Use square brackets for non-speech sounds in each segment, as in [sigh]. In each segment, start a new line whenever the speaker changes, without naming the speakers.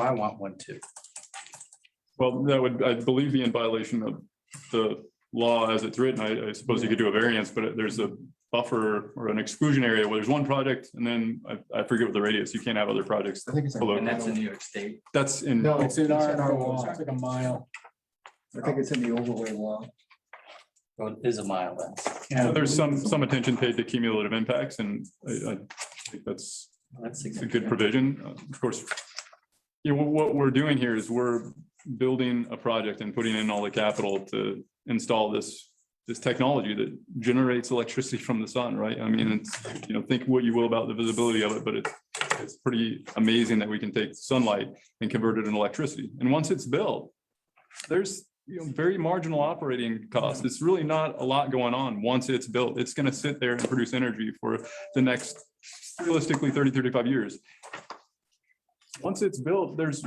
I want one too.
Well, that would, I believe, be in violation of the law as it's written. I, I suppose you could do a variance, but there's a buffer or an exclusion area where there's one project and then I, I forget what the radius, you can't have other projects
I think it's.
below.
And that's in New York State.
That's in,
No.
It's in R and R law.
It's like a mile. I think it's in the overlay law.
Well, it is a mile then.
so there's some, some attention paid to cumulative impacts and I, I think that's
That's
It's a good provision, Uh, of course. You know, what we're doing here is we're building a project and putting in all the capital to install this, this technology that generates electricity from the sun, right? I mean, it's, you know, think what you will about the visibility of it, but it's, it's pretty amazing that we can take sunlight and convert it into electricity. And once it's built, there's, you know, very marginal operating costs. It's really not a lot going on once it's built. It's going to sit there and produce energy for the next realistically 30, 35 years. Once it's built, there's,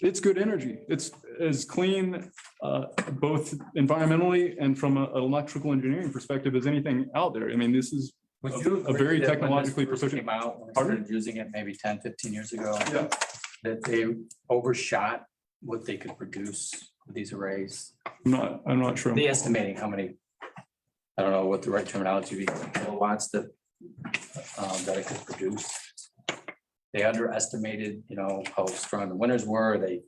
it's good energy. It's as clean, uh, both environmentally and from a- an electrical engineering perspective as anything out there. I mean, this is,
Would you
a
agree
very
that when this
technologically
first
proficient-
Came out, when we
Pardon?
started using it maybe 10, 15 years ago.
Yeah.
That they overshot what they could produce with these arrays.
I'm not, I'm not sure.
They estimating how many, I don't know what the right terminology would be, kilowatts that, um, that it could produce. They underestimated, you know, how strong the winters were. They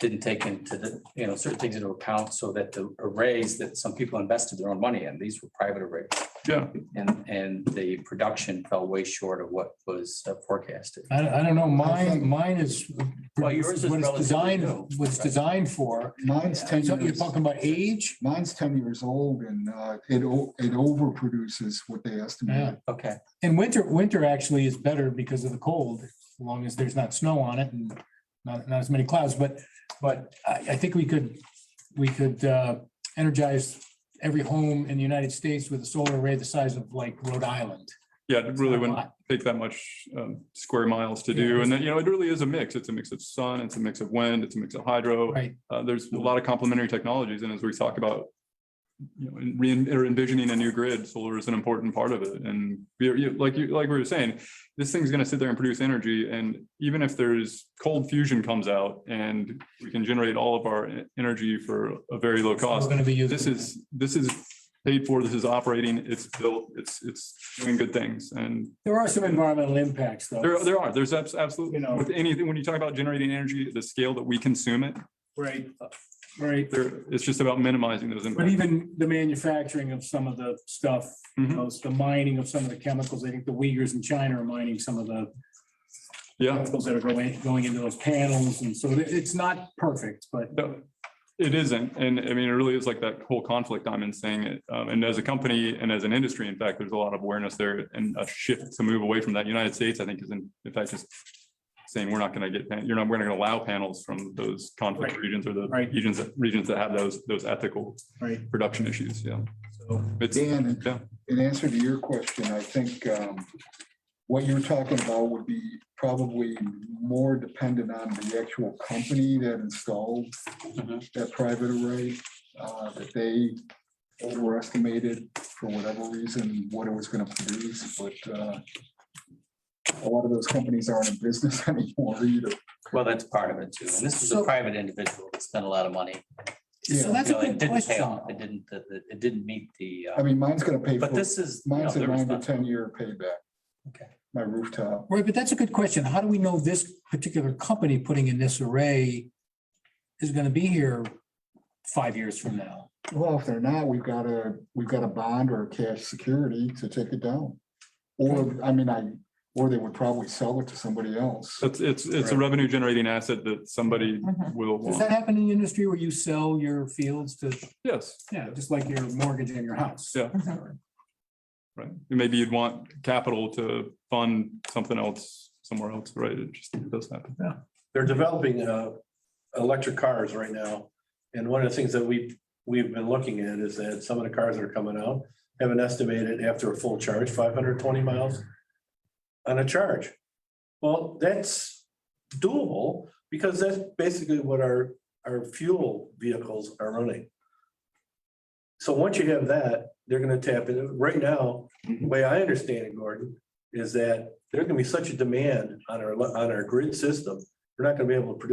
didn't take into the, you know, certain things into account so that the arrays that some people invested their own money in, these were private arrays.
Yeah,
And, and the production fell way short of what was uh, forecasted.
I, I don't know, mine, mine is.
Well, yours is
What it's
relatively
designed,
new.
what it's designed for.
Mine's
So
ten
you're
years,
talking about age?
mine's ten years old and uh, it, o- it overproduces what they estimated.
Okay,
And winter, winter actually is better because of the cold, as long as there's not snow on it and not, not as many clouds, but, but I, I think we could, we could, uh, energize every home in the United States with a solar array the size of like Rhode Island.
yeah, it really wouldn't
Not a lot.
take that much um, square miles to
Yeah.
do. And then, you know, it really is a mix. It's a mix of sun, it's a mix of wind, it's a mix of hydro.
Right,
Uh, there's a lot of complementary technologies, and as we talk about, you know, in re- or envisioning a new grid, solar is an important part of it. And we- you- like you, like we were saying, this thing's gonna sit there and produce energy, and even if there's cold fusion comes out and we can generate all of our e- energy for a very low
we're
cost,
gonna be using.
this is, this is paid for, this is operating, it's built, it's, it's doing good things, and
There are some environmental impacts though.
there, there are, there's abs- absolutely,
You know.
with anything, when you talk about generating energy, at the scale that we consume it,
Right, right.
there, it's just about minimizing those. impacts.
But even the manufacturing of some of the stuff, you know, it's the mining of some of the chemicals, I think the Uyghurs in China are mining some of the
Yeah,
chemicals that are going, going into those panels, and so it- it's not perfect, but
no, it isn't. And I mean, it really is like that whole conflict I'm in saying it. Um, and as a company and as an industry, in fact, there's a lot of awareness there and a shift to move away from that. United States, I think, is in, in fact, just saying we're not going to get, pan- you're not, we're not going to allow panels from those conflict
Right.
regions or the
Right.
regions, that- regions that have those, those ethical
Right.
production issues. Yeah.
so.
It's,
Dan, in-
yeah,
in answer to your question, I think um, what you're talking about would be probably more dependent on the actual company that installed
Mhm.
that private array, uh, that they overestimated for whatever reason, what it was gonna produce, but uh, a lot of those companies aren't in business [laughs] anymore either.
well, that's part of it too. And this is a
So-
private individual that spent a lot of money.
So
Yeah,
that's
You
a
know, it
good
didn't pay
question.
off. It didn't, the- the- it didn't meet the, uh,
I mean, mine's gonna pay,
but
for
this is. you know,
mine's a
their
nine to
responsibility.
ten year payback.
Okay.
My rooftop,
Right, but that's a good question. How do we know this particular company putting in this array is gonna be here five years from now?
well, if they're not, we've got a, we've got a bond or a cash security to take it down. Or, I mean, I, or they would probably sell it to somebody else.
it's, it's, it's a revenue generating asset that somebody will
Does
want.
that happen in the industry where you sell your fields to,
Yes.
yeah, just like your mortgage and your house?
Yeah. Right, And maybe you'd want capital to fund something else somewhere else, right? It just it does happen.
they're developing uh, electric cars right now. And one of the things that we, we've been looking at is that some of the cars that are coming out have an estimated after a full charge, five hundred twenty miles on a charge. Well, that's doable because that's basically what our, our fuel vehicles are running. So once you have that, they're gonna tap into, right now, the way I understand it, Gordon, is that there's gonna be such a demand on our, on our grid system we're not gonna be able to produce